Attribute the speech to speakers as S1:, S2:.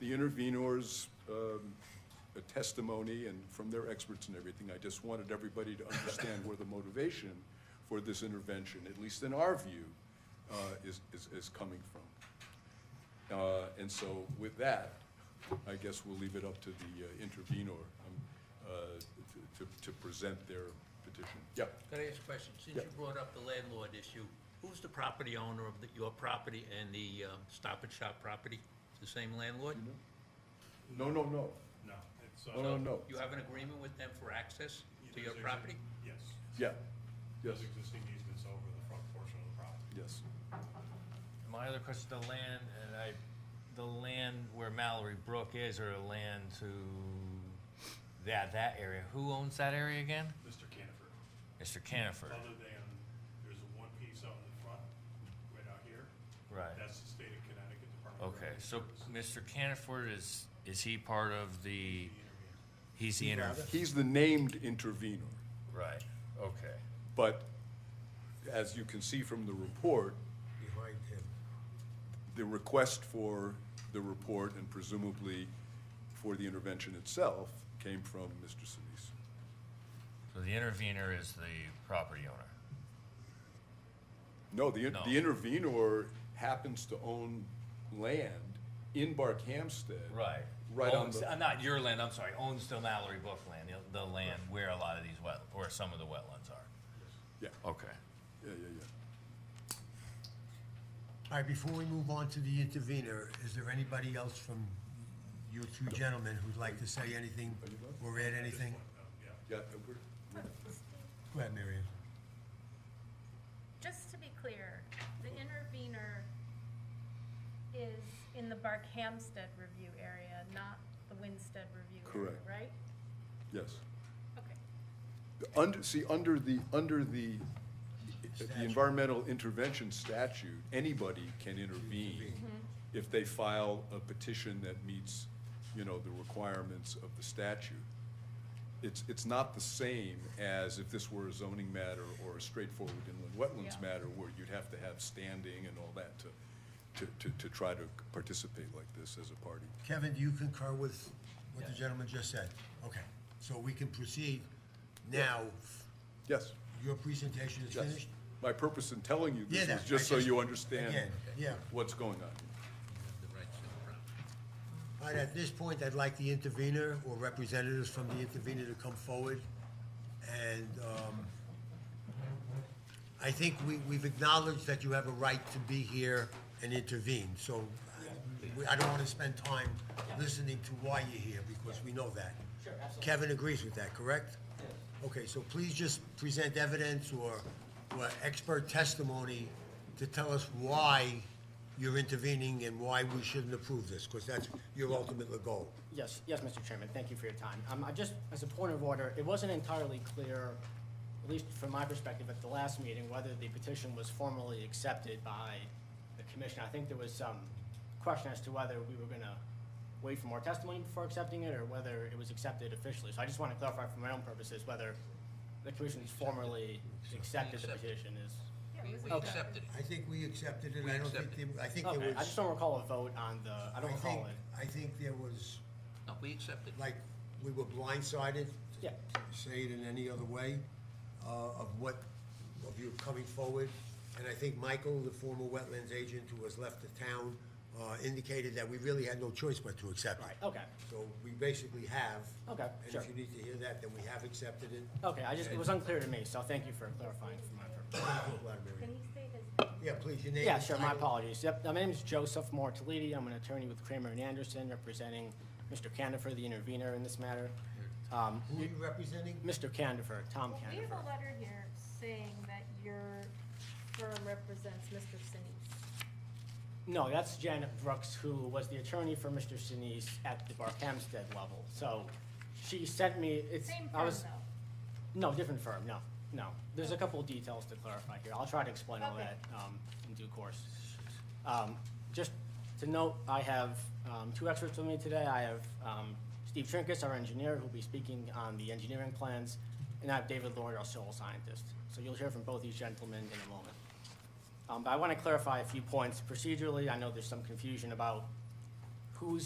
S1: the intervenors' um, uh, testimony and from their experts and everything, I just wanted everybody to understand where the motivation for this intervention, at least in our view, uh, is, is, is coming from. Uh, And so with that, I guess we'll leave it up to the uh, intervenor um, uh, to, to- to present their petition. Yeah,
S2: Can I ask a question? Since you
S1: Yeah.
S2: brought up the landlord issue, who's the property owner of the- your property and the um, Stop and Shop property? The same landlord?
S1: no, no, no,
S3: No, it's,
S1: no,
S3: uh,
S1: no, no,
S2: You have an agreement with them for access to your
S3: there's exi-
S2: property?
S3: Yes.
S1: yeah, yes,
S3: There's existing easements over the front portion of the property.
S1: yes.
S4: My other question, the land, and I, the land where Mallory Brook is, or land to that, that area, who owns that area again?
S3: Mr. Cantifer,
S4: Mr. Canifer,
S3: other than, there's a one piece out in the front, right out here.
S4: right,
S3: That's the state of Connecticut Department of
S4: okay,
S3: Revenue
S4: so
S3: Service.
S4: Mr. Canifer is, is he part of the,
S3: The intervener.
S4: he's the inter,
S1: He's the named intervenor,
S4: right, okay,
S1: but as you can see from the report,
S5: behind him.
S1: the request for the report and presumably for the intervention itself came from Mr. Solis.
S4: so the intervener is the property owner,
S1: No, the,
S4: No.
S1: the intervenor happens to own land in Barkhamsted.
S4: right?
S1: Right on
S4: Owns-
S1: the-
S4: uh, Not your land, I'm sorry, owns the Mallory Brook land, the- the land where a lot of these wet, where some of the wetlands are.
S1: Yeah,
S4: Okay.
S1: yeah, yeah, yeah.
S5: All right, before we move on to the intervener, is there anybody else from you two gentlemen who'd like to say anything or add anything?
S1: Yeah, we're- we're-
S5: Go ahead, Mary Ann.
S6: Just to be clear, the intervener is in the Barkhamsted review area, not the Winstead review area,
S1: Correct.
S6: right?
S1: yes.
S6: Okay.
S1: Under, see, under the, under the, the
S5: Statute.
S1: environmental intervention statute, anybody can intervene if they file a petition that meets, you know, the requirements of the statute. It's, it's not the same as if this were a zoning matter or a straightforward inland wetlands
S6: Yeah.
S1: matter where you'd have to have standing and all that to, to, to, to try to participate like this as a party.
S5: Kevin, do you concur with what the gentleman just said? Okay, so we can proceed now.
S1: Yes,
S5: Your presentation is
S1: yes.
S5: finished?
S1: My purpose in telling you this
S5: Yeah,
S1: was
S5: that-
S1: just
S5: I
S1: so
S5: just-
S1: you understand
S5: Again, yeah.
S1: what's going on.
S2: The rights to the property.
S5: All right, at this point, I'd like the intervener or representatives from the intervener to come forward. And um, I think we, we've acknowledged that you have a right to be here and intervene. So uh, we- I don't want to spend time listening to why you're here, because we know that. Sure, absolutely. Kevin agrees with that, correct? Yes. Okay, so please just present evidence or or expert testimony to tell us why you're intervening and why we shouldn't approve this, because that's your ultimate goal.
S7: Yes, yes, Mr. Chairman, thank you for your time. Um, I just, as a point of order, it wasn't entirely clear, at least from my perspective at the last meeting, whether the petition was formally accepted by the commission. I think there was some question as to whether we were gonna wait for more testimony before accepting it, or whether it was accepted officially. So I just want to clarify for my own purposes whether the commission's formally accepted the
S2: Accepted.
S7: petition is.
S2: We- We
S7: Okay.
S2: accepted it.
S5: I think we accepted it, I don't think, there- I think there
S7: Okay,
S5: was.
S7: I just don't recall a vote on the, I don't
S5: I think-
S7: recall it.
S5: I think there was,
S2: No, we accepted. it.
S5: like, we were blindsided.
S7: Yeah.
S5: Say it in any other way, uh, of what, of you coming forward. And I think Michael, the former wetlands agent who has left the town, uh, indicated that we really had no choice but to accept it.
S7: Right, okay.
S5: So we basically have.
S7: Okay, sure.
S5: And if you need to hear that, then we have accepted it.
S7: Okay, I just, it was unclear to me, so thank you for clarifying for my purpose.
S5: Glad, Mary.
S6: Can you say his
S5: Yeah, please, your name.
S7: Yeah, sure, my
S5: title.
S7: apologies. Yep, my name is Joseph Mortalidi. I'm an attorney with Kramer and Anderson, representing Mr. Candifer, the intervener in this matter. Um,
S5: Who are you representing?
S7: Mr. Candifer, Tom
S6: Well, we have
S7: Candifer.
S6: a letter here saying that your firm represents Mr. Sinise.
S7: No, that's Janet Brooks, who was the attorney for Mr. Sinise at the Barkhamsted level. So she sent me, it's,
S6: Same
S7: I
S6: firm
S7: was,
S6: though.
S7: no, different firm, no, no. There's a couple of details to clarify here. I'll try to explain all
S6: Okay.
S7: that um, in due course. Um, Just to note, I have um, two experts with me today. I have um, Steve Trinkus, our engineer, who'll be speaking on the engineering plans, and I have David Lord, our soil scientist. So you'll hear from both these gentlemen in a moment. Um, But I want to clarify a few points procedurally. I know there's some confusion about who's